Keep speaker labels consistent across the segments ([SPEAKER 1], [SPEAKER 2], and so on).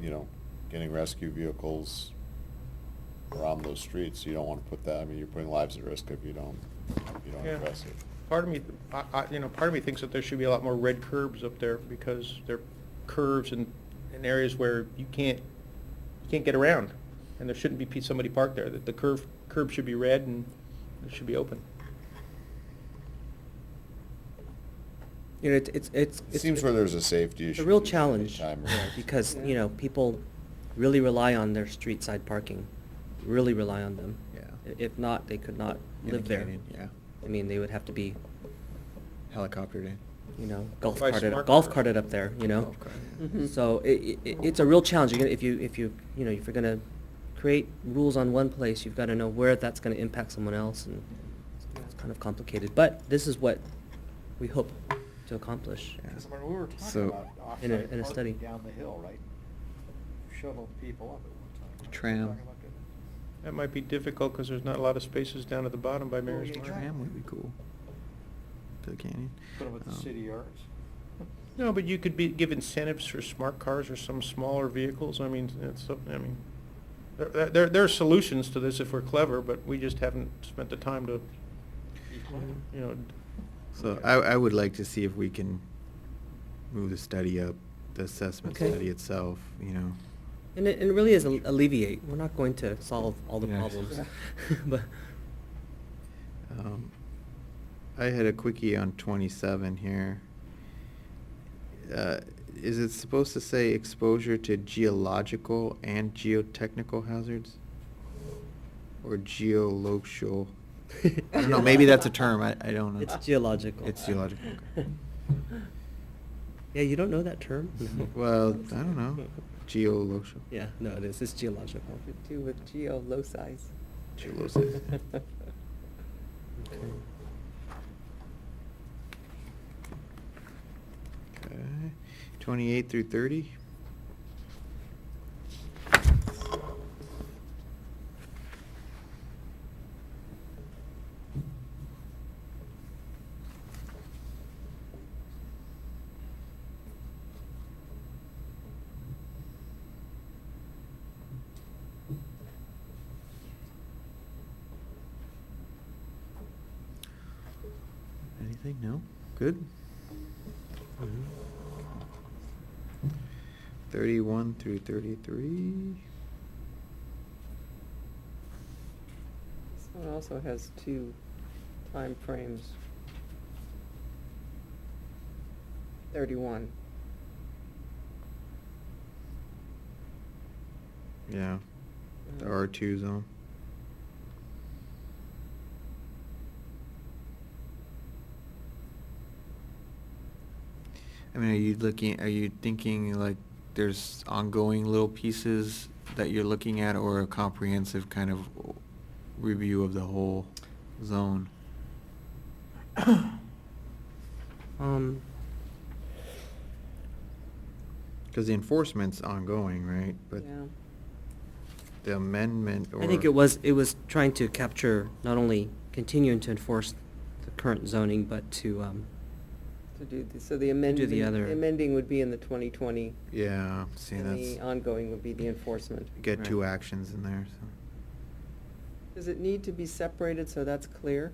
[SPEAKER 1] you know, getting rescue vehicles around those streets, you don't wanna put that, I mean, you're putting lives at risk if you don't, if you don't
[SPEAKER 2] Yeah.
[SPEAKER 1] address it.
[SPEAKER 2] Part of me, I, I, you know, part of me thinks that there should be a lot more red curbs up there because they're curves in, in areas where you can't, you can't get around. And there shouldn't be pe- somebody parked there. That the curve, curb should be red and it should be open.
[SPEAKER 3] You know, it's, it's, it's.
[SPEAKER 1] It seems where there's a safety issue.
[SPEAKER 3] A real
[SPEAKER 1] there's any
[SPEAKER 3] challenge,
[SPEAKER 1] time
[SPEAKER 3] yeah,
[SPEAKER 1] risk.
[SPEAKER 3] because,
[SPEAKER 2] Yeah.
[SPEAKER 3] you know, people really rely on their street side parking, really rely on them.
[SPEAKER 4] Yeah.
[SPEAKER 3] I- If not, they could not
[SPEAKER 4] In the
[SPEAKER 3] live there.
[SPEAKER 4] canyon, yeah.
[SPEAKER 3] I mean, they would have to be,
[SPEAKER 4] Helicoptered in.
[SPEAKER 3] you know, golf
[SPEAKER 2] Buy
[SPEAKER 3] carted,
[SPEAKER 2] smart
[SPEAKER 3] golf
[SPEAKER 2] cars.
[SPEAKER 3] carted up there, you know? Mm-hmm.
[SPEAKER 4] Golf cart, yeah.
[SPEAKER 5] Mhm.
[SPEAKER 3] So it, it, it's a real challenge, You're gonna- if you, if you, you know, if you're gonna create rules on one place, you've gotta know where that's gonna impact someone else, and it's kind of complicated, but this is what we hope to accomplish.
[SPEAKER 4] Yeah.
[SPEAKER 6] Because when we were talking
[SPEAKER 4] So-
[SPEAKER 6] about
[SPEAKER 3] In a-
[SPEAKER 6] off-site
[SPEAKER 3] in a study.
[SPEAKER 6] parking down the hill, right? Shuttled people up at one time.
[SPEAKER 4] Tram.
[SPEAKER 6] Talking about the-
[SPEAKER 2] That might be difficult because there's not a lot of spaces down at the bottom by Mary's
[SPEAKER 6] yeah,
[SPEAKER 2] Mark.
[SPEAKER 4] Tram would be cool. To the canyon.
[SPEAKER 6] Put them at the
[SPEAKER 4] Um,
[SPEAKER 6] city yards.
[SPEAKER 2] No, but you could be, give incentives for smart cars or some smaller vehicles. I mean, it's, some- I mean, there- there, there, there are solutions to this if we're clever, but we just haven't spent the time to, you know,
[SPEAKER 4] So I, I would like to see if we can move the study up, the assessment
[SPEAKER 3] Okay.
[SPEAKER 4] study itself, you know.
[SPEAKER 3] And it, it really is al- alleviate. We're not going to solve all the
[SPEAKER 4] Yeah.
[SPEAKER 3] problems, but
[SPEAKER 4] Um, I had a quickie on twenty-seven here. Uh, Is it supposed to say exposure to geological and geotechnical hazards? Or geolocal? I don't know, maybe that's a term, I, I don't know.
[SPEAKER 3] it's geological.
[SPEAKER 4] It's geological, okay.
[SPEAKER 3] yeah, you don't know that term? No.
[SPEAKER 4] Well, I don't know, geolocal.
[SPEAKER 3] yeah, no, it is. It's geological.
[SPEAKER 5] To do with geo locis.
[SPEAKER 4] Geolosis.
[SPEAKER 3] Okay.
[SPEAKER 4] Okay, twenty-eight through thirty? Anything? No? Good?
[SPEAKER 3] Mhm.
[SPEAKER 4] Thirty-one through thirty-three?
[SPEAKER 5] This one also has two time frames. Thirty-one.
[SPEAKER 4] Yeah, the R two zone. I mean, are you looking, are you thinking like there's ongoing little pieces that you're looking at or a comprehensive kind of review of the whole zone?
[SPEAKER 3] Um,
[SPEAKER 4] Cause the enforcement's ongoing, right? But
[SPEAKER 5] Yeah.
[SPEAKER 4] the amendment or.
[SPEAKER 3] I think it was it was trying to capture not only continuing to enforce the current zoning, but to um,
[SPEAKER 5] To do, the- so the amendment,
[SPEAKER 3] other-
[SPEAKER 5] the amending would be in the twenty twenty,
[SPEAKER 4] Yeah, see,
[SPEAKER 5] and the
[SPEAKER 4] that's,
[SPEAKER 5] ongoing would be the enforcement.
[SPEAKER 4] get
[SPEAKER 3] Right.
[SPEAKER 4] two actions in there, so.
[SPEAKER 5] Does it need to be separated so that's clear?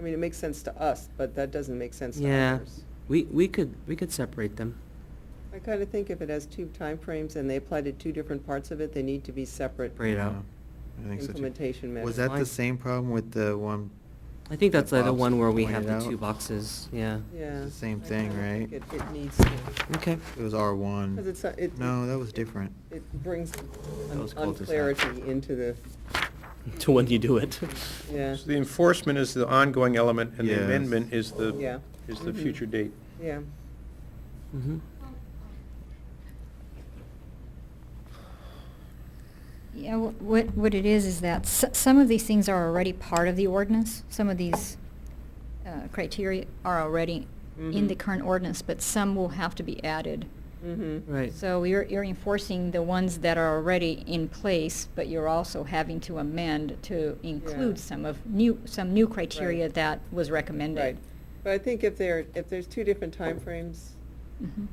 [SPEAKER 5] I mean, it makes sense to us, but that doesn't make sense to
[SPEAKER 3] yeah,
[SPEAKER 5] others.
[SPEAKER 3] we we could we could separate them.
[SPEAKER 5] I kind of think if it has two timeframes and they apply to two different parts of it, they need to be separate.
[SPEAKER 3] Break it out.
[SPEAKER 4] Yeah, I think so too.
[SPEAKER 5] Implementation
[SPEAKER 4] Was
[SPEAKER 5] measures.
[SPEAKER 4] that
[SPEAKER 3] Fine.
[SPEAKER 4] the same problem with the one?
[SPEAKER 3] I think that's the,
[SPEAKER 4] that
[SPEAKER 3] the
[SPEAKER 4] Bob's
[SPEAKER 3] one where we have the
[SPEAKER 4] pointed
[SPEAKER 3] two
[SPEAKER 4] out?
[SPEAKER 3] boxes. Yeah.
[SPEAKER 5] Yeah.
[SPEAKER 4] It's the same
[SPEAKER 5] I
[SPEAKER 4] thing,
[SPEAKER 5] kinda
[SPEAKER 4] right?
[SPEAKER 5] think It, it needs to,
[SPEAKER 3] Okay.
[SPEAKER 4] It was R one.
[SPEAKER 5] because it's, not- it.
[SPEAKER 4] No, that was different.
[SPEAKER 5] It brings
[SPEAKER 4] That
[SPEAKER 5] un-
[SPEAKER 4] was cul-de-sac.
[SPEAKER 5] unclarity into the,
[SPEAKER 3] to when you do it.
[SPEAKER 5] yeah,
[SPEAKER 2] So The enforcement is the ongoing element, and the
[SPEAKER 4] Yes.
[SPEAKER 2] amendment is
[SPEAKER 5] Yeah.
[SPEAKER 2] the, is the
[SPEAKER 5] Mhm.
[SPEAKER 2] future date.
[SPEAKER 5] yeah.
[SPEAKER 3] Mm-hmm.
[SPEAKER 7] Yeah, wh- what, what it is, is that s- some of these things are already part of the ordinance. Some of these uh, criteria are already in the
[SPEAKER 5] Mhm.
[SPEAKER 7] current ordinance, but some will have to be added.
[SPEAKER 5] Mm-hmm.
[SPEAKER 3] Right.
[SPEAKER 7] So you're, you're enforcing the ones that are already in place, but you're also having to amend to include
[SPEAKER 5] Yeah.
[SPEAKER 7] some of new, some new criteria
[SPEAKER 5] Right.
[SPEAKER 7] that was recommended.
[SPEAKER 5] Right. But I think if there, if there's two different timeframes,
[SPEAKER 7] Mhm.